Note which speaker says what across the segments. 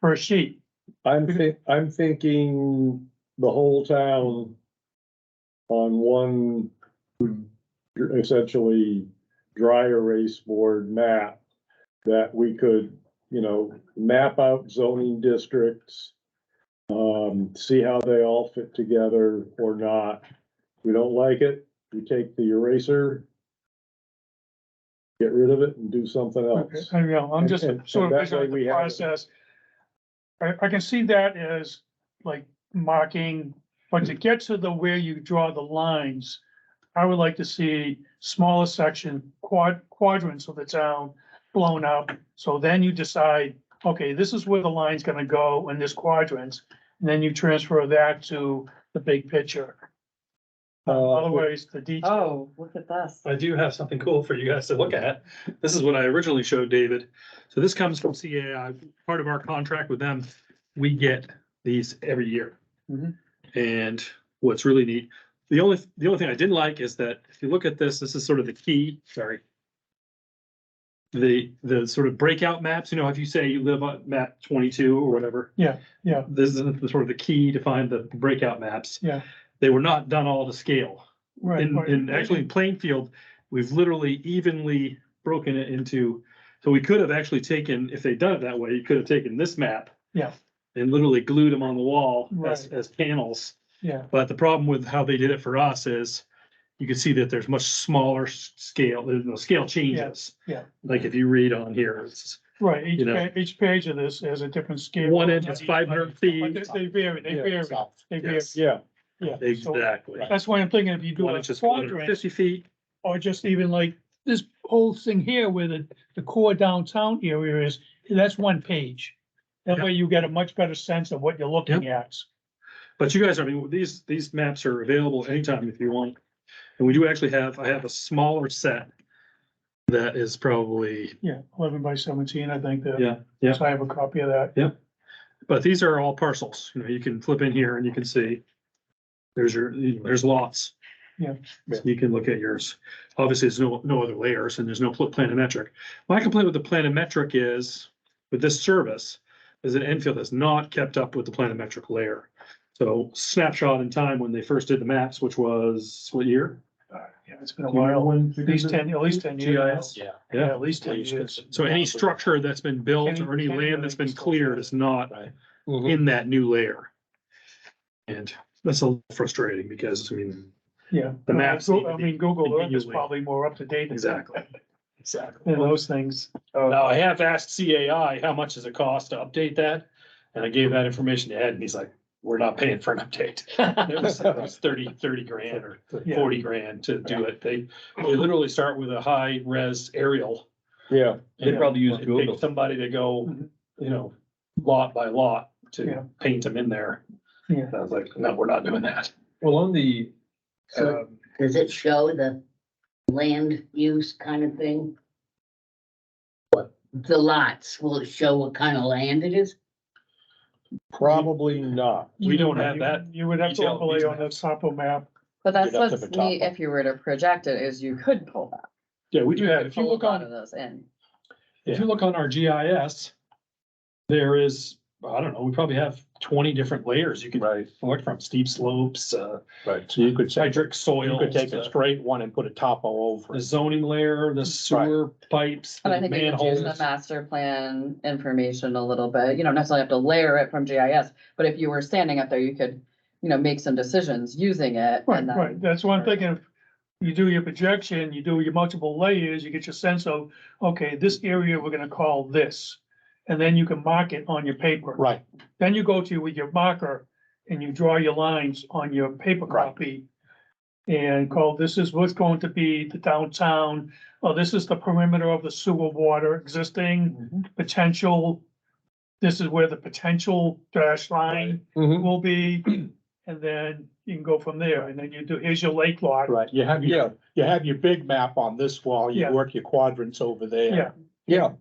Speaker 1: per sheet.
Speaker 2: I'm thi- I'm thinking the whole town on one essentially dry erase board map that we could, you know, map out zoning districts, um, see how they all fit together or not. If we don't like it, we take the eraser, get rid of it and do something
Speaker 1: Okay,
Speaker 2: else.
Speaker 1: I know, I'm just
Speaker 2: And- and
Speaker 1: sort of
Speaker 2: that
Speaker 1: visualizing
Speaker 2: way we
Speaker 1: the
Speaker 2: have it.
Speaker 1: process. I, I can see that as like marking, but to get to the where you draw the lines, I would like to see smaller section, quad, quadrants of the town blown up. So then you decide, okay, this is where the line's gonna go in this quadrant, and then you transfer that to the big picture.
Speaker 2: Uh,
Speaker 1: Otherwise, the detail.
Speaker 3: Oh, look at this.
Speaker 4: I do have something cool for you guys to look at. This is what I originally showed David. So this comes from CAI, part of our contract with them. We get these every year.
Speaker 1: Mhm.
Speaker 4: And what's really neat, the only, the only thing I didn't like is that if you look at this, this is sort of the key, sorry. The, the sort of breakout maps, you know, if you say you live on map twenty-two or whatever.
Speaker 1: Yeah, yeah.
Speaker 4: This is the sort of the key to find the breakout maps.
Speaker 1: Yeah.
Speaker 4: They were not done all to scale.
Speaker 1: Right,
Speaker 4: In,
Speaker 1: right,
Speaker 4: in
Speaker 1: right.
Speaker 4: actually in Plainfield, we've literally evenly broken it into, so we could have actually taken, if they'd done it that way, you could have taken this map.
Speaker 1: Yeah.
Speaker 4: And literally glued them on the wall as,
Speaker 1: Right.
Speaker 4: as panels.
Speaker 1: Yeah,
Speaker 4: But the problem with how they did it for us is you can see that there's much smaller s- scale, there's no scale changes.
Speaker 1: yeah.
Speaker 4: Like if you read on here, it's
Speaker 1: right.
Speaker 4: You
Speaker 1: Each,
Speaker 4: know.
Speaker 1: pa- each page of this has a different scale.
Speaker 4: one inch is five hundred
Speaker 1: But
Speaker 4: feet.
Speaker 1: They they vary, they
Speaker 2: Yeah,
Speaker 1: vary, they vary,
Speaker 4: Yes.
Speaker 2: Yeah,
Speaker 1: yeah. So
Speaker 4: Exactly.
Speaker 1: That's why I'm thinking if you do
Speaker 4: One
Speaker 1: a
Speaker 4: inch is four hundred
Speaker 1: quadrant,
Speaker 4: fifty feet.
Speaker 1: or just even like this whole thing here where the, the core downtown area is, that's one page. That
Speaker 4: Yeah.
Speaker 1: way you get a much better sense of what you're looking at.
Speaker 4: But you guys, I mean, these, these maps are available anytime if you want. And we do actually have, I have a smaller set. That is probably,
Speaker 1: Yeah, eleven by seventeen, I think that.
Speaker 4: Yeah, yeah.
Speaker 1: So I have a copy of that.
Speaker 4: but these are all parcels, you know, you can flip in here and you can see. There's your, you know, there's lots.
Speaker 1: Yeah.
Speaker 4: So You can look at yours. Obviously, there's no, no other layers and there's no pl- planimetric. My complaint with the planimetric is, with this service, is that Enfield has not kept up with the planimetric layer. So snapshot in time when they first did the maps, which was what year?
Speaker 1: Uh, Yeah, it's been a while, at least ten, at least ten years.
Speaker 4: GIS?
Speaker 1: now.
Speaker 5: Yeah.
Speaker 1: Yeah, at least ten years.
Speaker 4: So any structure that's been built or any land that's been cleared is not in that new layer. And Mm-hmm. that's a little frustrating because, I mean,
Speaker 1: Yeah.
Speaker 4: The maps
Speaker 1: Go-
Speaker 4: need to
Speaker 1: I
Speaker 4: be
Speaker 1: mean, Google Earth is
Speaker 4: continually-
Speaker 1: probably more up to date. than-
Speaker 4: exactly. Exactly.
Speaker 1: Than those things. Uh,
Speaker 4: Now, I have asked CAI, how much does it cost to update that? And I gave that information to Ed and he's like, we're not paying for an update. It was it was thirty, thirty grand or
Speaker 1: Yeah.
Speaker 4: forty grand to do it. They, they literally start with a high res aerial.
Speaker 2: yeah.
Speaker 5: They probably use
Speaker 4: It'd take
Speaker 5: Google.
Speaker 4: Somebody to go,
Speaker 1: Mhm.
Speaker 4: you know, lot by lot
Speaker 1: Yeah.
Speaker 4: to paint them in there.
Speaker 1: Yeah.
Speaker 4: And I was like, no, we're not doing that.
Speaker 5: Well, on the,
Speaker 6: So
Speaker 5: um,
Speaker 6: does it show the land use kind of thing? What, the lots, will it show what kind of land it is?
Speaker 2: Probably not.
Speaker 4: We don't have that
Speaker 1: You would have to
Speaker 4: detail
Speaker 1: overlay
Speaker 4: these
Speaker 1: on the topo map.
Speaker 3: But that's
Speaker 2: Get up to
Speaker 3: what's
Speaker 2: the top
Speaker 3: neat,
Speaker 2: one.
Speaker 3: if you were to project it, is you could pull that.
Speaker 4: Yeah, we do have, if you
Speaker 3: pull a
Speaker 4: look
Speaker 3: lot of
Speaker 4: on,
Speaker 3: those in.
Speaker 4: if you look on our GIS, there is, I don't know, we probably have twenty different layers you can
Speaker 5: right,
Speaker 4: select from, steep slopes, uh,
Speaker 5: right.
Speaker 2: So you could say,
Speaker 4: hydric
Speaker 2: you
Speaker 4: soil,
Speaker 2: could take a
Speaker 4: the
Speaker 2: straight one and put a topo over
Speaker 4: the
Speaker 2: it.
Speaker 4: zoning layer, the sewer pipes,
Speaker 3: And I
Speaker 4: the
Speaker 3: think we could use the
Speaker 4: manholes.
Speaker 3: master plan information a little bit, you don't necessarily have to layer it from GIS, but if you were standing up there, you could, you know, make some decisions using it.
Speaker 1: Right,
Speaker 3: and then-
Speaker 1: right. That's what I'm thinking. If You do your projection, you do your multiple layers, you get your sense of, okay, this area we're gonna call this. And then you can mark it on your paper.
Speaker 2: Right,
Speaker 1: Then you go to with your marker and you draw your lines on your paper
Speaker 2: Right.
Speaker 1: copy. And call, this is what's going to be the downtown, or this is the perimeter of the sewer water existing, potential. This is where the potential dash line
Speaker 2: Mhm.
Speaker 1: will be, and then you can go from there, and then you do, here's your lake lot.
Speaker 2: right. You have, your you have your big map on this wall, you
Speaker 1: Yeah.
Speaker 2: work your quadrants over there.
Speaker 1: Yeah.
Speaker 2: Yeah,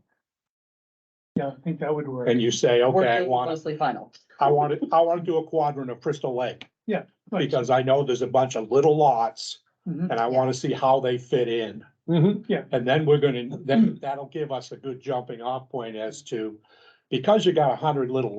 Speaker 1: Yeah, I think that would work.
Speaker 2: and you say,
Speaker 3: Or
Speaker 2: okay, I
Speaker 3: do
Speaker 2: want,
Speaker 3: Mostly final.
Speaker 2: I want to, I want to do a quadrant of Crystal Lake.
Speaker 1: Yeah, right.
Speaker 2: Because I know there's a bunch of little lots
Speaker 1: Mhm.
Speaker 2: and I want to see how they fit in.
Speaker 1: Mm-hmm. Yeah.
Speaker 2: And then we're gonna, then that'll give us a good jumping off point as to because you got a hundred little